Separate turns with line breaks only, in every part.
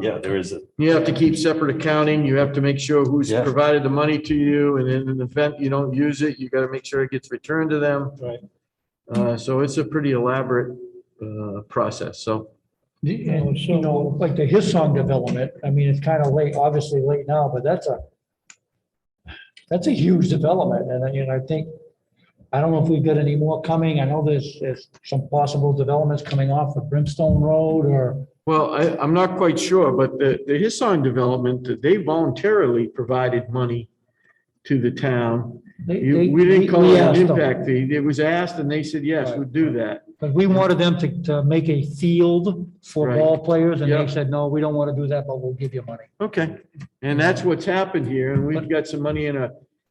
yeah, there is a,
You have to keep separate accounting. You have to make sure who's
Yeah.
provided the money to you and in the event you don't use it, you gotta make sure it gets returned to them.
Right.
Uh, so it's a pretty elaborate, uh, process. So,
The- And, you know, like the Hillsong development, I mean, it's kind of late, obviously late now, but that's a, that's a huge development, and, I- you know, I think, I don't know if we've got any more coming, I know there's, there's some possible developments coming off of Brimstone Road or,
well, I, I'm not quite sure, but the, the Hissong development, they voluntarily provided money to the town.
they,
You,
they.
we didn't call
we
it an
asked them.
impact fee. It was asked and they said, yes, we'll do that.
But we wanted them to, to make a field for
Right.
ball players, and they
Yep.
said, no, we don't want to do that, but we'll give you money.
Okay, and that's what's happened here, and we've got some money in a,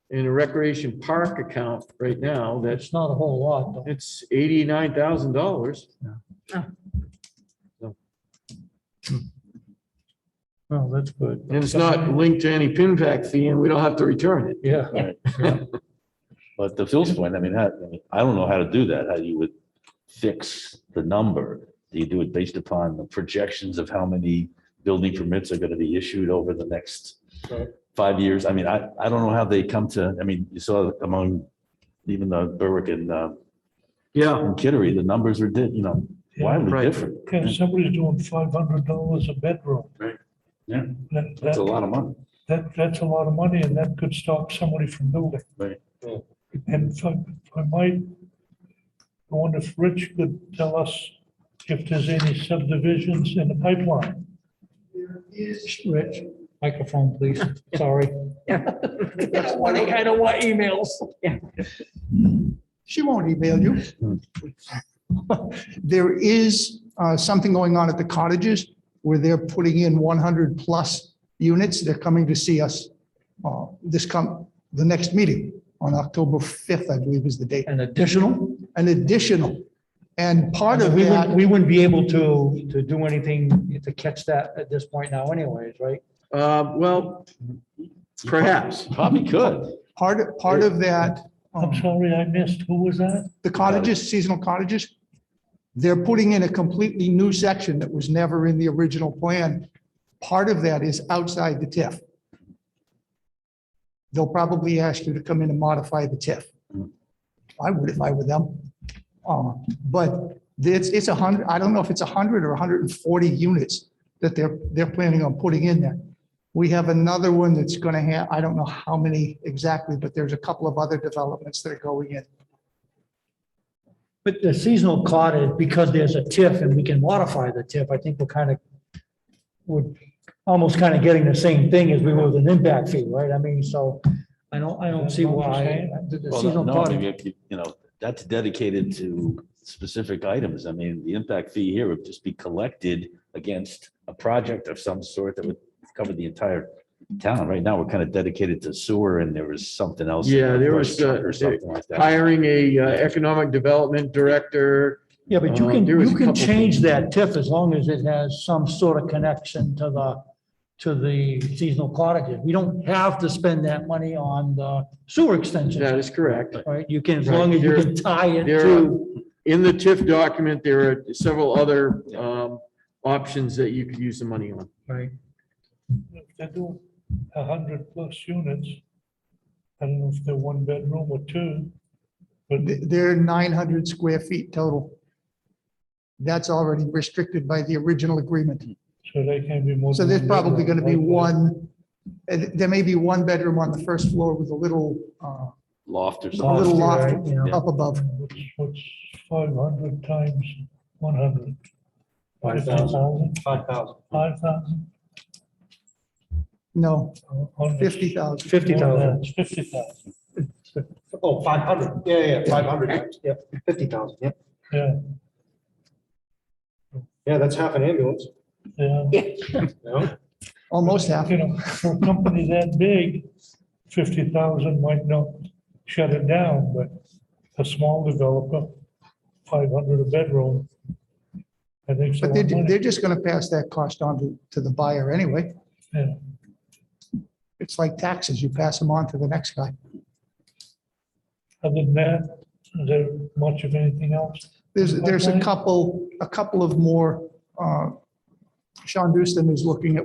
in a recreation park account right now, that's,
It's not a whole lot, though.
it's eighty-nine thousand dollars.
Well, that's good.
And it's not linked to any pin pack fee, and we don't have to return it.
Yeah.
but to Phil's point, I mean, how- I mean, I don't know how to do that, how you would fix the number. Do you do it based upon the projections of how many building permits are gonna be issued over the next
Right.
five years? I mean, I, I don't know how they come to, I mean, you saw among even the Berwick and, uh,
Yeah,
and Kittery, the numbers are, di- you know,
Yeah,
wildly
right.
different.
Okay, somebody's doing five hundred dollars a bedroom.
Mm. Right, yeah.
That,
That's a
that,
lot of money.
that, that's a lot of money and that could stop somebody from building.
Right.
Yeah.
And if I, if I might, I wonder if Rich could tell us if there's any subdivisions in the pipeline.
Rich, microphone, please. Sorry.
I don't want emails.
She won't email you.
Hmm.
There is uh, something going on at the cottages where they're putting in 100 plus units. They're coming to see us uh, this come, the next meeting on October 5th, I believe is the date,
An additional?
an additional. And part of
We wouldn't,
that,
we wouldn't be able to, to do anything to catch that at this point now anyways, right?
uh, well, perhaps.
Probably could.
part, part of that,
I'm
um,
sorry, I missed. Who was that?
the cottages, seasonal cottages, they're putting in a completely new section that was never in the original plan. Part of that is outside the TIF. They'll probably ask you to come in and modify the TIF. I would if I were them. Uh, But it's, it's a hundred, I don't know if it's a hundred or hundred and forty units that they're, they're planning on putting in there. We have another one that's gonna have, I don't know how many exactly, but there's a couple of other developments that are going in.
But the seasonal cottage, because there's a TIF and we can modify the TIF, I think we're kind of, we're almost kind of getting the same thing as we were with an impact fee, right? I mean, so I don't, I don't see why the the
Well,
seasonal
no, I
cottage.
mean, if you you know, that's dedicated to specific items. I mean, the impact fee here would just be collected against a project of some sort that would cover the entire town. Right now, we're kind of dedicated to sewer and there was something else.
Yeah, there was, uh,
Or something like that.
Hiring a uh, economic development director,
Yeah, but you
Uh,
can,
there was
you
a
can
couple
change
things.
that TIF as long as it has some sort of connection to the, to the seasonal cottages. We don't have to spend that money on the sewer
that
extension,
is correct.
right? You can, as long as you can tie it
There
to,
are, in the TIF document, there are several other, um, options that you could use the money on.
right?
If they're doing a hundred plus units, I don't know if they're one bedroom or two, but
Th- They're nine hundred square feet total. That's already restricted by the original agreement.
so they can be more.
So
than
there's
one
probably
bedroom,
gonna be
right?
one, uh, there may be one bedroom on the first floor with a little, uh,
Loft or
a
something.
little
Loft,
loft
right, yeah.
up above.
What's, what's five hundred times one hundred?
Five thousand.
Five thousand. Five thousand?
No, fifty thousand.
Fifty thousand.
Fifty thousand,
Oh, five hundred, yeah, yeah, yeah, five hundred times, yeah, fifty thousand, yeah,
yeah,
yeah, that's half an ambulance,
yeah.
you know?
Almost half.
You know, for a company that big, fifty thousand might not shut it down, but a small developer, five hundred a bedroom. I think so.
But they're, they're just gonna pass that cost on to, to the buyer anyway.
Yeah.
It's like taxes, you pass them on to the next guy.
Other than that, is there much of anything else?
There's, there's a
Okay.
couple, a couple of more uh, Sean Houston is looking at